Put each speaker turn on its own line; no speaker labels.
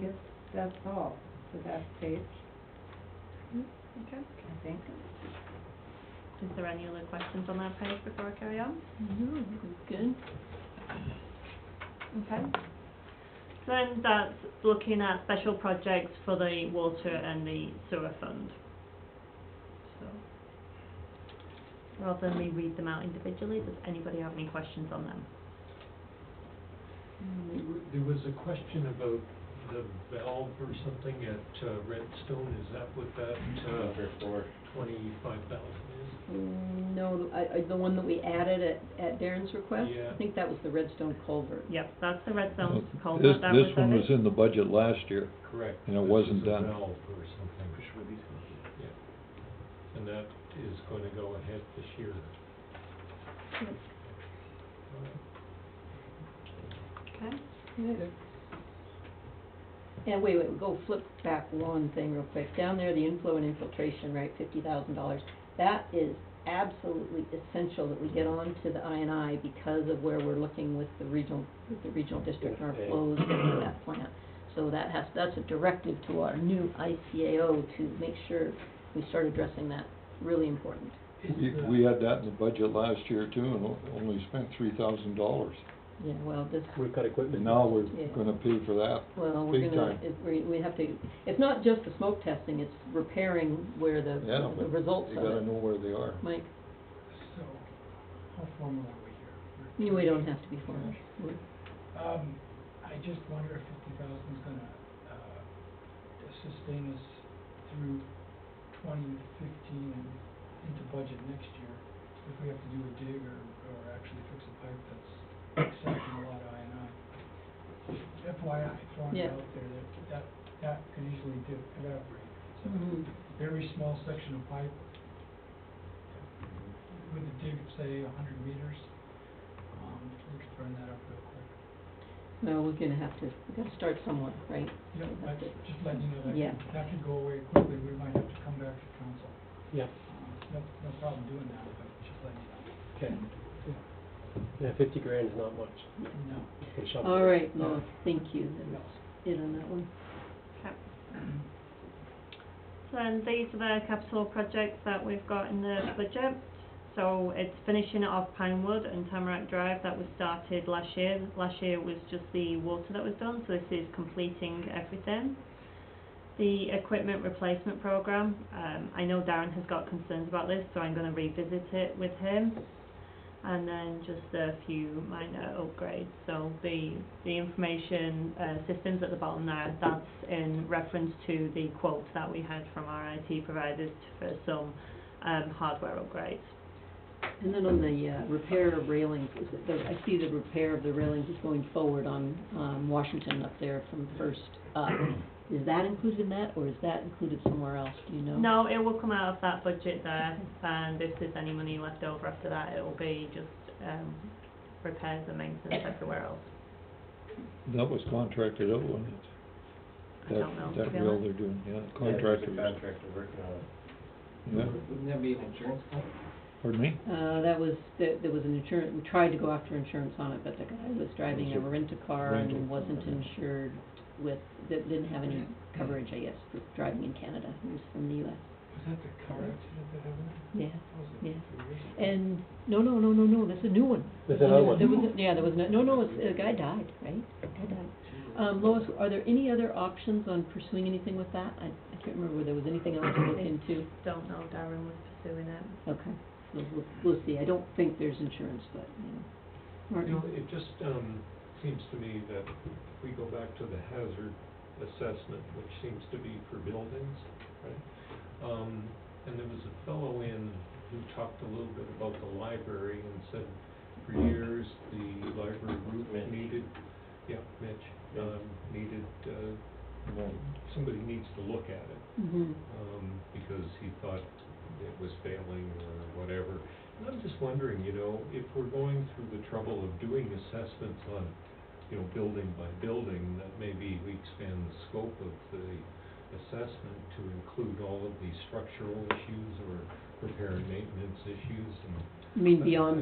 guess that's all for that page,
Okay.
I think.
Is there any other questions on that page before I carry on?
No,
Good. Okay. So then that's looking at special projects for the water and the sewer fund. So, rather than me read them out individually, does anybody have any questions on them?
There was a question about the valve or something at uh, Redstone, is that what that uh,
Number four.
twenty-five thousand is?
Mm, No, I, I, the one that we added at, at Darren's request?
Yeah.
I think that was the Redstone culvert.
Yep, that's the red zone
This,
culvert that was
this one was
added.
in the budget last year,
Correct.
And it
This
wasn't
is a
done.
Valve or something, and that is going to go ahead this year.
Okay.
And wait, wait, go flip back one thing real quick. Down there, the inflow and infiltration rate, fifty thousand dollars. That is absolutely essential that we get on to the INI because of where we're looking with the regional, with the regional district and our
Okay.
flows into that plant. So that has, that's a directive to our new ICAO to make sure we start addressing that. Really important.
Is
we,
the-
we had that in the budget last year too, and o- only spent three thousand dollars.
Yeah, well, this,
We've got equipment.
And now we're
Yeah.
gonna pay for that.
Well, we're
Big
gonna,
time.
it- we, we have to, it's not just the smoke testing, it's repairing where the,
Yeah,
the
but
results
you
of
gotta
it.
know where they are.
Mike,
So, how formal are we here?
you, we don't have to be formal. We're-
Um, I just wonder if fifty thousand's gonna, uh, sustain us through twenty fifteen and into budget next year. If we have to do a dig or, or actually fix a pipe that's accepting a lot of I and I. FYI, throwing it
Yeah.
out there, that, that, that could easily do, evaporate. So,
Mhm.
very small section of pipe with a dig, of, say, a hundred meters, um, we could burn that up real quick.
No, we're gonna have to, we gotta start somewhere, right?
Yeah, like, just letting you know, that
Yeah.
could, that could go away quickly, we might have to come back to council.
Yeah,
Um, No, no problem doing that, but just letting you know.
okay. Yeah, fifty grand is not much.
No.
Can
Oh.
shovel
All
it.
right, Lois, thank you,
No.
that's it on that one.
Okay. So then these are the capital projects that we've got in the budget. So it's finishing it off Pinewood and Tamarack Drive that was started last year. Last year was just the water that was done, so this is completing everything. The equipment replacement program, um, I know Darren has got concerns about this, so I'm gonna revisit it with him. And then just a few minor upgrades, so the, the information, uh, systems at the bottom there, that's in reference to the quote that we had from our IT providers for some, um, hardware upgrades.
And then on the, uh, repair of railings, is it, the- I see the repair of the railings is going forward on, um, Washington up there from first up. Is that included in that, or is that included somewhere else, do you know?
No, it will come out of that budget there, and if there's any money left over after that, it will be just, um, repairs and maintenance everywhere else.
That was contracted out, wasn't it?
I don't know, to be
That, that rail
honest.
they're doing, yeah,
Yeah, there's a
contracted.
Contractor working on it.
Yeah,
Wouldn't that be an insurance company?
pardon me?
Uh, that was, there, there was an insurance, we tried to go after insurance on it, but the guy was driving a rent-a-car
Rental.
and wasn't insured with, that didn't have any coverage, I guess, for driving in Canada, he was from the US.
Was that the car accident that happened?
Yeah,
That was a
yeah,
few years ago.
and, no, no, no, no, no, that's a new one.
There's another
There
one.
was, a- yeah, there was, no, no, no, it's- the guy died, right? The guy died. Um, Lois, are there any other options on pursuing anything with that? I, I can't remember whether there was anything else to look into.
Don't know, Darren was pursuing it.
Okay, we'll, we'll, we'll see, I don't think there's insurance, but, you know.
You
Martin?
know, it just, um, seems to me that if we go back to the hazard assessment, which seems to be for buildings, right? Um, and there was a fellow in who talked a little bit about the library and said, for years, the library
Mitch.
group needed, yeah, Mitch, um, needed, uh, somebody needs to look at it
Mm-hmm.
um, because he thought it was failing or whatever. And I'm just wondering, you know, if we're going through the trouble of doing assessments on, you know, building by building, that maybe we expand the scope of the assessment to include all of these structural issues or repair and maintenance issues and
You mean beyond